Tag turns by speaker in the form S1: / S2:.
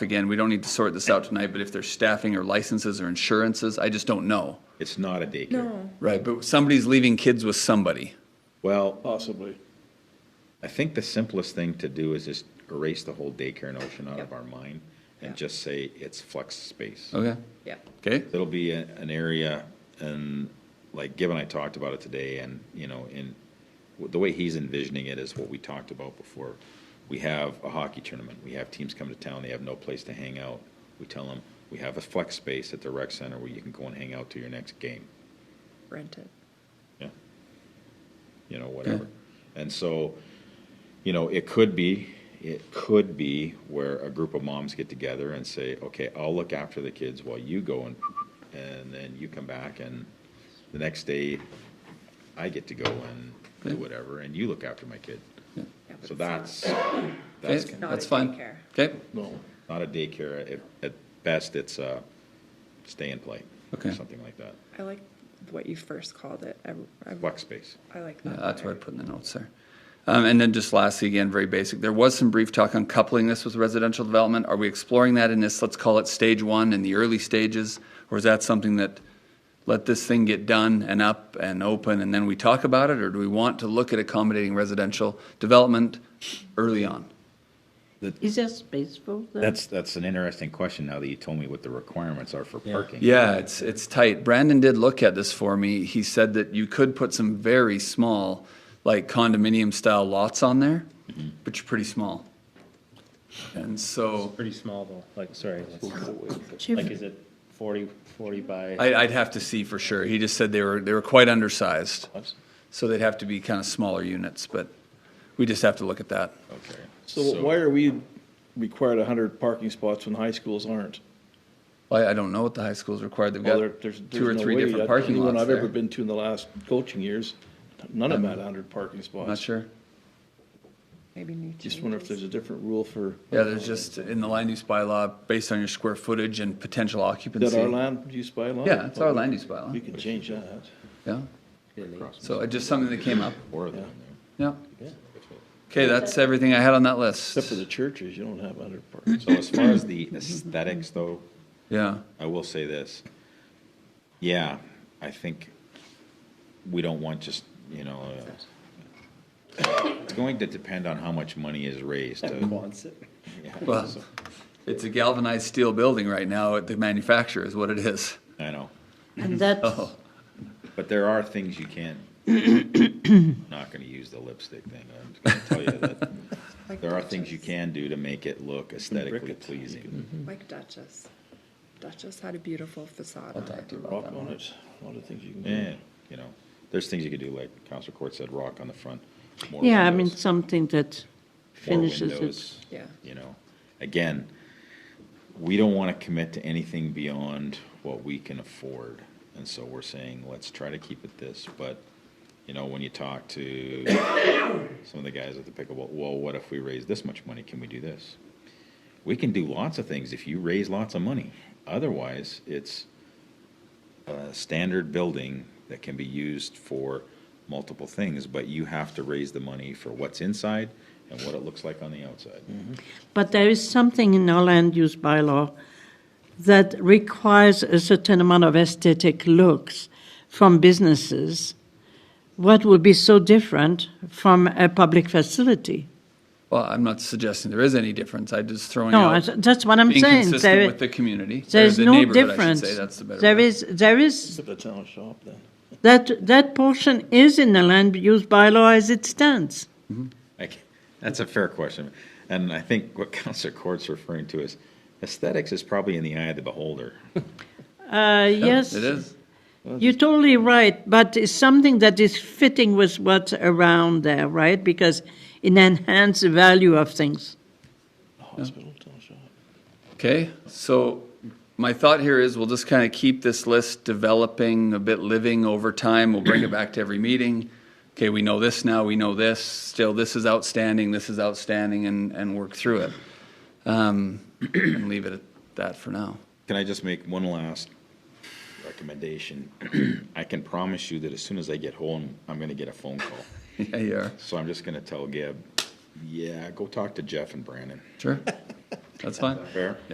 S1: again, we don't need to sort this out tonight, but if there's staffing or licenses or insurances, I just don't know.
S2: It's not a daycare.
S1: Right, but somebody's leaving kids with somebody.
S2: Well,
S3: Possibly.
S2: I think the simplest thing to do is just erase the whole daycare notion out of our mind and just say it's flex space.
S1: Okay,
S4: Yeah.
S1: okay,
S2: It'll be a- an area, and like Gibb and I talked about it today, and, you know, in, the way he's envisioning it is what we talked about before. We have a hockey tournament, we have teams come to town, they have no place to hang out. We tell them, we have a flex space at the rec center where you can go and hang out to your next game.
S4: Rent it.
S2: Yeah. You know, whatever. And so, you know, it could be, it could be where a group of moms get together and say, okay, I'll look after the kids while you go and, and then you come back and the next day I get to go and do whatever and you look after my kid.
S4: Yeah, but
S2: So
S4: it's not-
S2: that's, that's
S1: okay,
S4: not
S1: that's
S4: a
S1: fine.
S4: daycare.
S1: Okay,
S3: No.
S2: not a daycare. At, at best, it's a stay and play.
S1: Okay.
S2: Something like that.
S4: I like what you first called it. I, I,
S2: Flex space.
S4: I like
S1: yeah,
S4: that.
S1: Uh, that's what I put in the notes there. Um, and then just lastly, again, very basic, there was some brief talk on coupling this with residential development. Are we exploring that in this, let's call it stage one in the early stages? Or is that something that, let this thing get done and up and open and then we talk about it? Or do we want to look at accommodating residential development early on?
S5: Is that spaceful? though?
S2: That's, that's an interesting question now that you told me what the requirements are for parking.
S1: Yeah, it's it's tight. Brandon did look at this for me. He said that you could put some very small, like condominium style lots on there,
S3: Mm-hmm.
S1: but you're pretty small. And so
S6: Pretty small though, like, sorry, that's-
S5: Chief-
S6: like, is it 40 40 by?
S1: I, I'd have to see for sure. He just said they were they were quite undersized,
S6: Oops.
S1: so they'd have to be kind of smaller units. But we just have to look at that.
S2: Okay.
S3: So why are we required hundred parking spots when high schools aren't?
S1: I, I don't know what the high school's required. They've
S3: Well,
S1: got
S3: there- there's,
S1: two or
S3: there's no
S1: three
S3: way.
S1: different
S3: That's
S1: parking
S3: Anyone
S1: lots
S3: I've ever
S1: there.
S3: been to in the last coaching years, none of them had hundred parking spots.
S1: Not sure.
S4: Maybe new changes.
S3: Just wonder if there's a different rule for,
S1: Yeah, there's just in the land use bylaw based on your square footage and potential occupancy.
S3: that our land use bylaw?
S1: Yeah, it's our land use bylaw.
S3: We can change that.
S1: Yeah. So uh, just something that came up.
S2: Or than
S1: Yeah. Okay, that's everything I had on that list.
S3: Except for the churches, you don't have hundred parking.
S2: So as far as the aesthetics though,
S1: Yeah,
S2: I will say this. Yeah, I think we don't want just, you know, uh, it's going to depend on how much money is raised. uh, yeah,
S1: well,
S2: so-
S1: it's a galvanized steel building right now at the manufacturer is what it is.
S2: I know,
S5: And that's,
S1: Oh,
S2: but there are things you can't, I'm not gonna use the lipstick thing, I'm just gonna tell you that.
S4: Like
S2: There are things you
S4: Duchess.
S2: can do to make it look aesthetically
S3: it.
S2: pleasing.
S4: Like Duchess. Duchess had a beautiful facade
S1: I'll
S4: on
S1: talk
S4: it.
S1: to you about
S3: Rock
S1: that.
S3: on it, a lot of things you can
S2: Yeah,
S3: do.
S2: you know, there's things you could do, like Counselor Court said, rock on the front. more
S5: yeah, I mean,
S2: windows.
S5: something that
S2: more
S5: finishes it.
S2: windows,
S4: Yeah.
S2: You know, again, we don't want to commit to anything beyond what we can afford. And so we're saying, let's try to keep it this, but, you know, when you talk to some of the guys at the pickleball, well, what if we raise this much money? Can we do this? We can do lots of things if you raise lots of money. Otherwise, it's a standard building that can be used for multiple things, but you have to raise the money for what's inside and what it looks like on the outside.
S5: But there is something in our land use bylaw that requires a certain amount of aesthetic looks from businesses. What would be so different from a public facility?
S1: Well, I'm not suggesting there is any difference. I just throwing
S5: No, I-
S1: out,
S5: that's what I'm
S1: being
S5: saying.
S1: consistent
S5: There-
S1: with the community. or
S5: There's
S1: the
S5: no
S1: neighborhood, I should
S5: difference.
S1: say. That's the better
S5: There
S1: word.
S5: is, there is
S3: Except the town shop then.
S5: That, that portion is in the land use bylaw as it stands.
S2: Like, that's a fair question. And I think what Counselor Court's referring to is aesthetics is probably in the eye of the beholder.
S5: Uh,
S1: Yeah,
S5: yes,
S1: It is.
S5: you're totally right, but it's something that is fitting with what's around there, right? Because it enhances the value of things.
S3: Hospital, town shop.
S1: Okay, so my thought here is we'll just kind of keep this list developing, a bit living over time. We'll bring it back to every meeting. Okay, we know this now, we know this, still this is outstanding, this is outstanding, and, and work through it. Um, and leave it at that for now.
S2: Can I just make one last recommendation? I can promise you that as soon as I get home, I'm going to get a phone call.
S1: Yeah, you are.
S2: So I'm just going to tell Gib, yeah, go talk to Jeff and Brandon.
S1: Sure. That's fine.
S2: Fair?